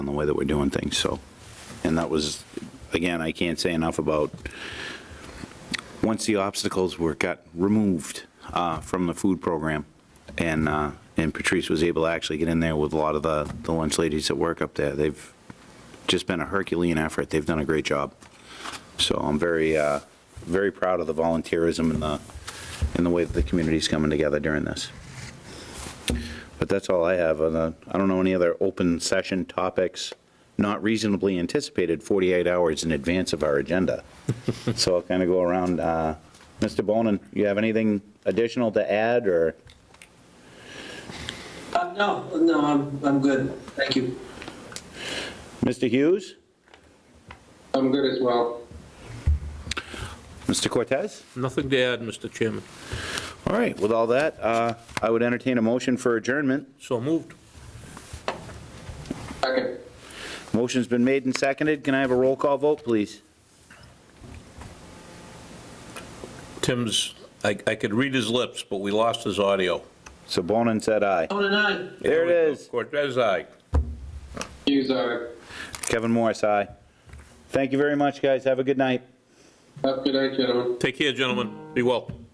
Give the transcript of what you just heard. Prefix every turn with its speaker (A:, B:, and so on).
A: on the way that we're doing things, so. And that was, again, I can't say enough about, once the obstacles were, got removed uh, from the food program, and, uh, and Patrice was able to actually get in there with a lot of the, the lunch ladies that work up there, they've just been a Herculean effort, they've done a great job. So I'm very, uh, very proud of the volunteerism and the, and the way that the community's coming together during this. But that's all I have. on the- I don't know any other open session topics not reasonably anticipated 48 hours in advance of our agenda. So I'll kind of go around. uh, Mr. Bonin, you have anything additional to add, or?
B: Uh, No, no, I'm, I'm good. Thank you.
A: Mr. Hughes?
B: I'm good as well.
A: Mr. Cortez?
C: Nothing to add, Mr. Chairman.
A: All right, with all that, uh, I would entertain a motion for adjournment.
C: So moved.
B: Second.
A: Motion's been made and seconded. Can I have a roll call vote, please?
C: Tim's, I, I could read his lips, but we lost his audio.
A: So Bonin said aye.
B: Tone and I.
A: There it is.
C: Cortez, aye.
B: Hughes, aye.
A: Kevin Morris, aye. Thank you very much, guys. Have a good night.
B: Have a good night, gentlemen.
C: Take care, gentlemen. Be well.